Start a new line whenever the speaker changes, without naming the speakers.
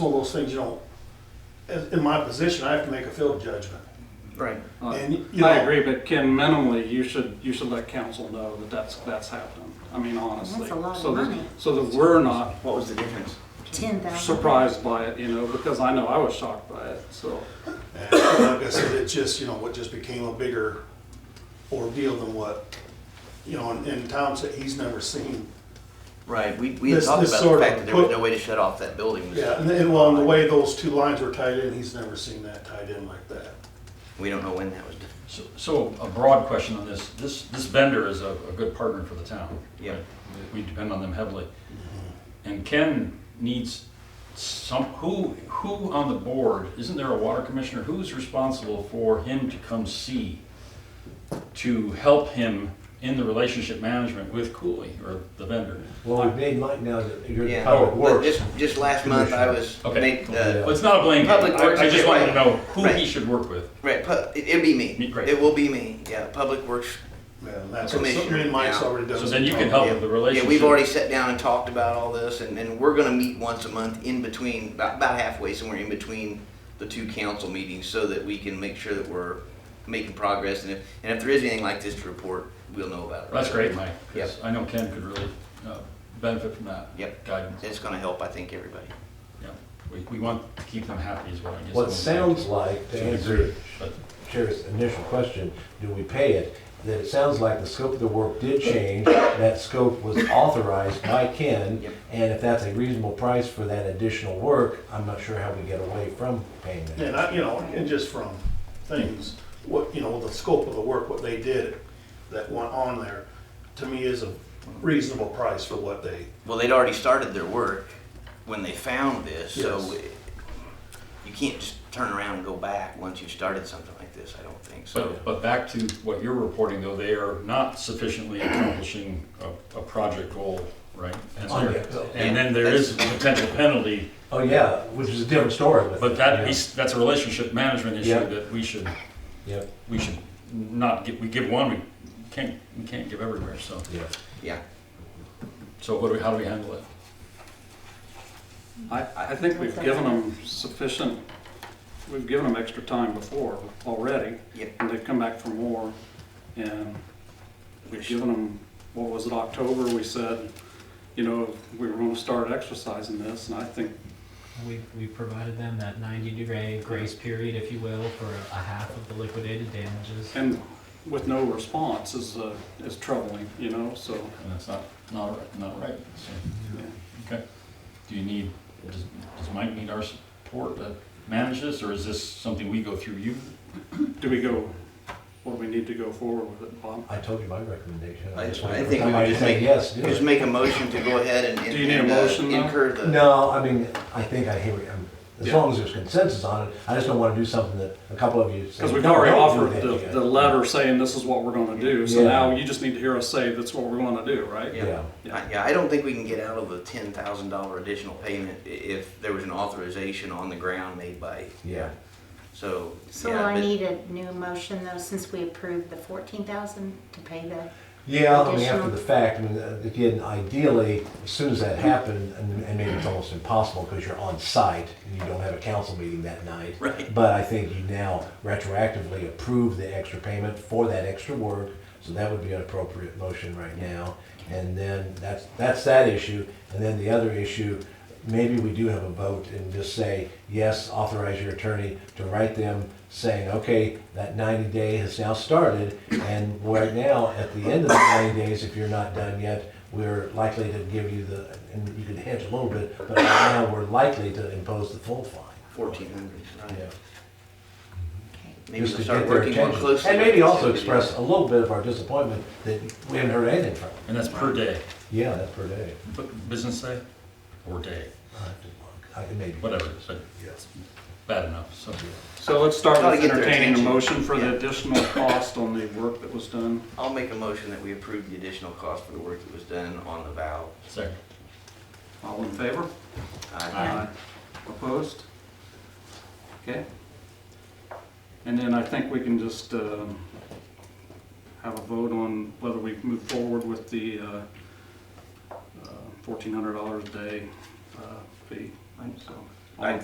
one of those things, you know, as- in my position, I have to make a field judgment.
Right.
And, you know.
Uh, I agree, but Ken, minimally, you should, you should let council know that that's, that's happened. I mean, honestly.
That's a lot of
so that-
money.
So that we're not
What was the difference?
Ten thousand.
surprised by it, you know, because I know I was shocked by it, so.
And like I said, it just, you know, it just became a bigger ordeal than what, you know, and, and Tom said he's never seen.
Right, we, we had
This-
talked
this
about the
sort
fact
of
that there was
put-
no way to shut off that building.
Yeah, and, and well, and the way those two lines were tied in, he's never seen that tied in like that.
We don't know when that was, done.
So- So a broad question on this, this, this vendor is a, a good partner for the town.
Yeah.
right? We depend on them heavily. And Ken needs some, who, who on the board, isn't there a water commissioner, who's responsible for him to come see? To help him in the relationship management with Cooley or the vendor?
Well, we've made mine now that you're the
yeah. Oh,
public
But
works.
just, just last month, I was,
Okay.
made,
Well,
uh,
It's not a blame game,
Public Works
I, I
is
just wanted to
right.
know who he
Right.
should work with.
right, pu- it- it'll be
Me-
me.
great.
It will be me, yeah, Public Works.
Yeah, and that's what
Commissioner,
me and Mike's
yeah.
already done.
So then you can help
Yeah.
with Oh, the
Yeah,
relationship.
we've already sat down and talked about all this, and, and we're gonna meet once a month in between, about, about halfway, somewhere in between the two council meetings, so that we can make sure that we're making progress, and if, and if there is anything like this to report, we'll know about it.
That's great, Mike, 'cause I know Ken could really uh, benefit from that.
Yep.
Guidance,
It's gonna help, I think, everybody.
yeah. We, we want to keep them happy as well. I guess
What
that's-
sounds like,
to
to
a
answer
degree, but-
Sheriff's initial question, do we pay it? That it sounds like the scope of the work did change, that scope was authorized by Ken,
Yep.
and if that's a reasonable price for that additional work, I'm not sure how we get away from paying
And
that.
I, you know, and just from things, what, you know, the scope of the work, what they did that went on there, to me is a reasonable price for what they,
Well, they'd already started their work when they found this, so
Yes.
it- you can't just turn around and go back once you've started something like this, I don't think, so.
But, but back to what you're reporting though, they are not sufficiently accomplishing a, a project goal, right? And
Oh,
there-
yeah.
And then there is a potential penalty,
Oh, yeah, which is a different story with.
but
yeah.
that, is- that's a relationship management issue
Yeah.
that we should,
Yep,
we should not give, we give one, we can't, we can't give everywhere, so.
yeah.
Yeah,
So what do we, how do we handle it?
I, I think we've given them sufficient, we've given them extra time before already.
Yeah.
And they've come back for more, and we've given them, what was it, October, we said, you know, we were gonna start exercising this, and I think
We, we provided them that ninety degree grace period, if you will, for a half of the liquidated damages.
And with no response is, uh, is troubling, you know, so.
And that's not, not, right- not right, so. Okay. Do you need, does, does Mike need our support to manage this, or is this something we go through you?
Do we go, what do we need to go forward with it, Bob?
I told you my recommendation.
I
just
I
wanted-
think we would
I
just
said
make,
Yes, do
just
it.
make a motion to go ahead and
Do you need a
and, uh,
motion, though?
incur the.
No, I mean, I think I hear, you. I'm- as
Yeah.
long as there's consensus on it, I just don't wanna do something that a couple of you say.
Because we've
"No,
already
don't do
offered
that
the,
yet."
the letter saying this is what we're gonna do, so
Yeah.
now you just need to hear us say that's what we're gonna do, right?
Yeah.
I- Yeah, I don't think we can get out of the ten thousand dollar additional payment i- if there was an authorization on the ground made by,
Yeah,
so.
So will
yeah,
I
but-
need a new motion though, since we approved the fourteen thousand to pay the,
yeah, I mean, after
Additional-
the fact, I mean, uh, again, ideally, as soon as that happened, and, and maybe it's almost impossible because you're on site and you don't have a council meeting that night.
Right.
But I think you now retroactively approve the extra payment for that extra work, so that would be an appropriate motion right now. And then that's, that's that issue, and then the other issue, maybe we do have a vote and just say, yes, authorize your attorney to write them saying, okay, that ninety day has now started, and right now, at the end of the ninety days, if you're not done yet, we're likely to give you the, and you could hedge a little bit, but right now, we're likely to impose the full fine.
Fourteen hundred, right.
Yeah.
Maybe
Just
we'll
to
start
get their
working more
attention.
closely.
And
with
maybe
this
also
individual.
express a little bit of our disappointment that we haven't heard anything from them.
And that's per day,
Yeah, that's per day.
bu- business day, or day,
I'll have to look. I- Maybe.
whatever, but
Yes.
bad enough, so.
So let's start
Gotta
with
get their
entertaining a
attention.
motion for
Yeah.
the additional cost on the work that was done.
I'll make a motion that we approve the additional cost for the work that was done on the valve.
Second.
All in favor?
Aye.
Opposed? Okay. And then I think we can just um, have a vote on whether we move forward with the uh, uh, $1,400 a day uh, fee. So,